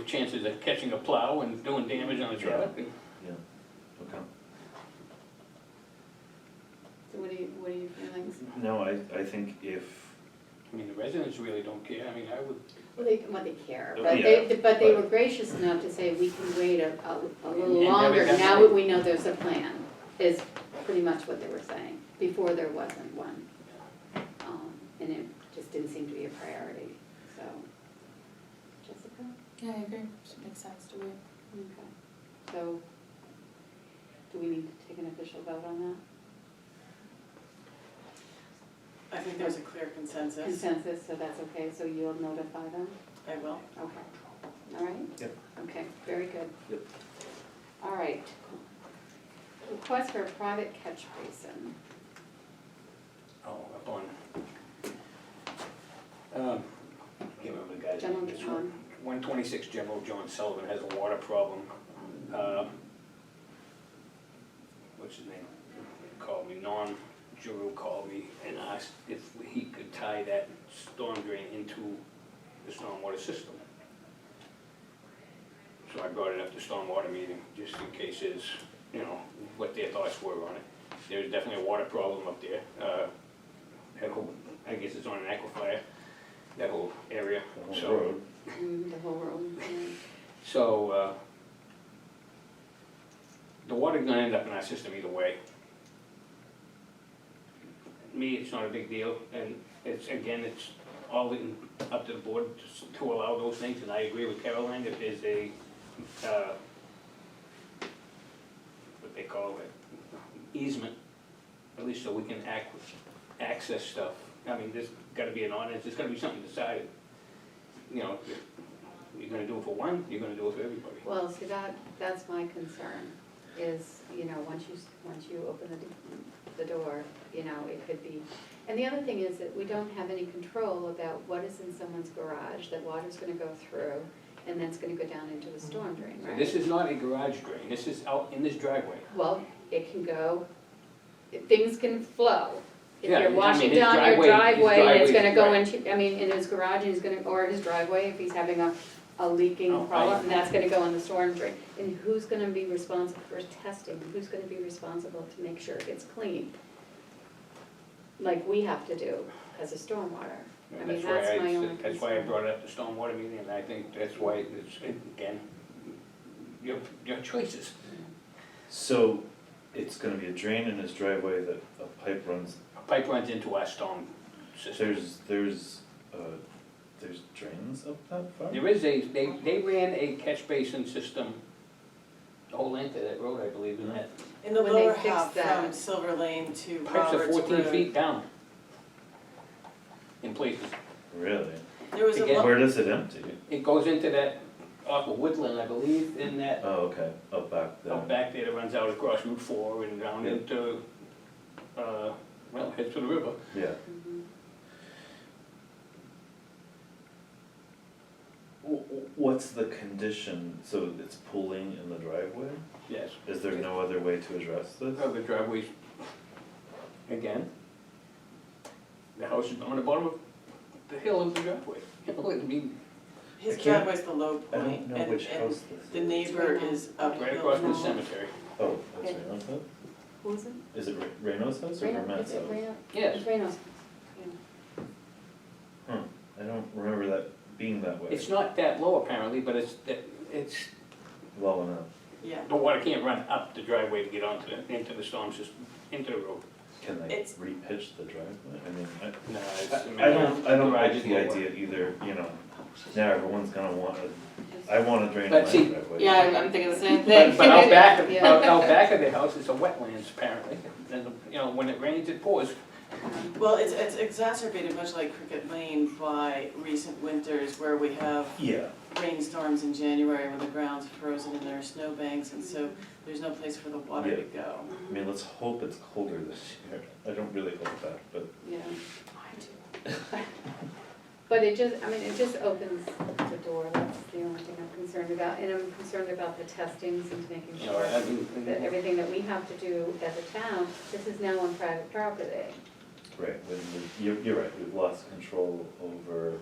chances of catching a plow and doing damage on a truck. and- yeah, okay. So what do you, what are your feelings? No, I, I think if, I mean, the residents really don't care, I mean, I would, Well, they, well, they care, Oh, but they, but they were but- gracious enough to say, we can wait a, a- a And- little and now we longer, got now the- that we know there's a plan, is pretty much what they were saying. Before there wasn't one, um, and it just didn't seem to be a priority, so. Jessica? Yeah, I agree, makes sense to me. Okay, so, do we need to take an official vote on I think there's a clear consensus. that? Consensus, so that's okay, so you'll notify them? I will. Okay, all right? Yep. Okay, very good. Yep. All right. Request for a private catch basin. oh, up on. um, I can't remember the guy's General name. It's John. One twenty-six General John Sullivan has a water problem. Um, What's his name? He Called me, Non Juru called me and asked if he could tie that storm drain into the stormwater system. So I brought it up to stormwater meeting, just in case is, you know, what their thoughts were on it. There's definitely a water problem up there. Uh, That whole, I guess it's on an aquifer, that whole area, the so. whole road, Mm, The whole room, So, uh, the water's gonna end up in our system either way. Me, it's not a big deal, and it's, again, it's all in, up to the board to- to allow those things, and I agree with Caroline, if there's a, uh, what they call it, easement, at least so we can ac access stuff. I mean, there's gotta be an ordinance, there's gotta be something decided. You know, you're gonna do it for one, you're gonna do it for everybody. Well, see, that, that's my concern, is, you know, once you, s- once you open the, the door, you know, it could be. And the other thing is that we don't have any control about what is in someone's garage, that water's gonna go through, and that's gonna go down into the storm drain, So right? Mm-hmm. This is not a garage drain, this is out in this driveway. Well, it can go, things can flow. If Yeah, I you're mean, washing his down your driveway- his driveway, and it's driveway's gonna go right. into, I mean, in his garage, and he's gonna, or his driveway, if he's having a, a Oh, leaking I- problem, and that's gonna go in the storm drain. And who's gonna be responsible for testing, who's gonna be responsible to make sure it gets clean? Like we have to do as a stormwater. I And mean, why that's I my said- only That's why I concern. brought up the stormwater meeting, and I think that's why it's, again, your, your choices. so it's gonna be a drain in his driveway that a pipe runs, A pipe runs into our storm system. there's, there's, uh, there's drains up that far? There is a, they, they ran a catch basin system, the whole length of that road, I believe, isn't it? In the When they lower fix half from that. Silver Lane to Mm-hmm. Pipes are Roberts fourteen Road, feet down in places. Really? There was a, Again. lo- Where does it empty? It goes into that, off of Woodland, I believe, in that Oh, okay, up back there. Out back there that runs out across Route four and down Yeah. into, uh, well, heads to the river. Yeah, Mhm. Wh- wh- what's the condition, so it's pooling in the driveway? Yes. Is there no other way to address this? Uh, The driveways, again, the house is on the bottom of the hill of the driveway. You know, I mean, I his can't- driveway's the low I don't point, know and- which and house this is. The neighbor is uphill. right across from the No. cemetery. Oh, that's Reno's house? Who is it? Is it Re- Reno's house or Reno- Vermette's is it house? Reno? uh-huh. Yes, It's Reno's. I don't remember that being that way, it's not that low apparently, but it's, that- it's, low enough. Yeah, the water can't run up the driveway to get onto the, into the storm system, into the road. Can they It's- repitch the driveway? I mean, I, No, it's. I I don't, I don't Garage like is the lower. idea either, you know, now everyone's gonna want, a- I want to drain my But see- driveway. Yeah, I'm- I'm thinking the same But, thing. but out back, of- Yeah. out, out back of the house is a wetlands apparently, and, you know, when it rains, it pours. Um, well, it's, it's exacerbated much like Cricket Lane by recent winters where we have Yeah, rainstorms in January when the ground's frozen and there are snowbanks, and so there's no place for the water to go. I mean, let's hope it's colder this year. I don't really hope that, but Yeah. But it just, I mean, it just opens the door, that's the only thing I'm concerned about, and I'm concerned about the testings and making You know, sure I mean, that everything that we have to do as a town, this is now on private property. Right, when we- you're, you're right, we've lost control over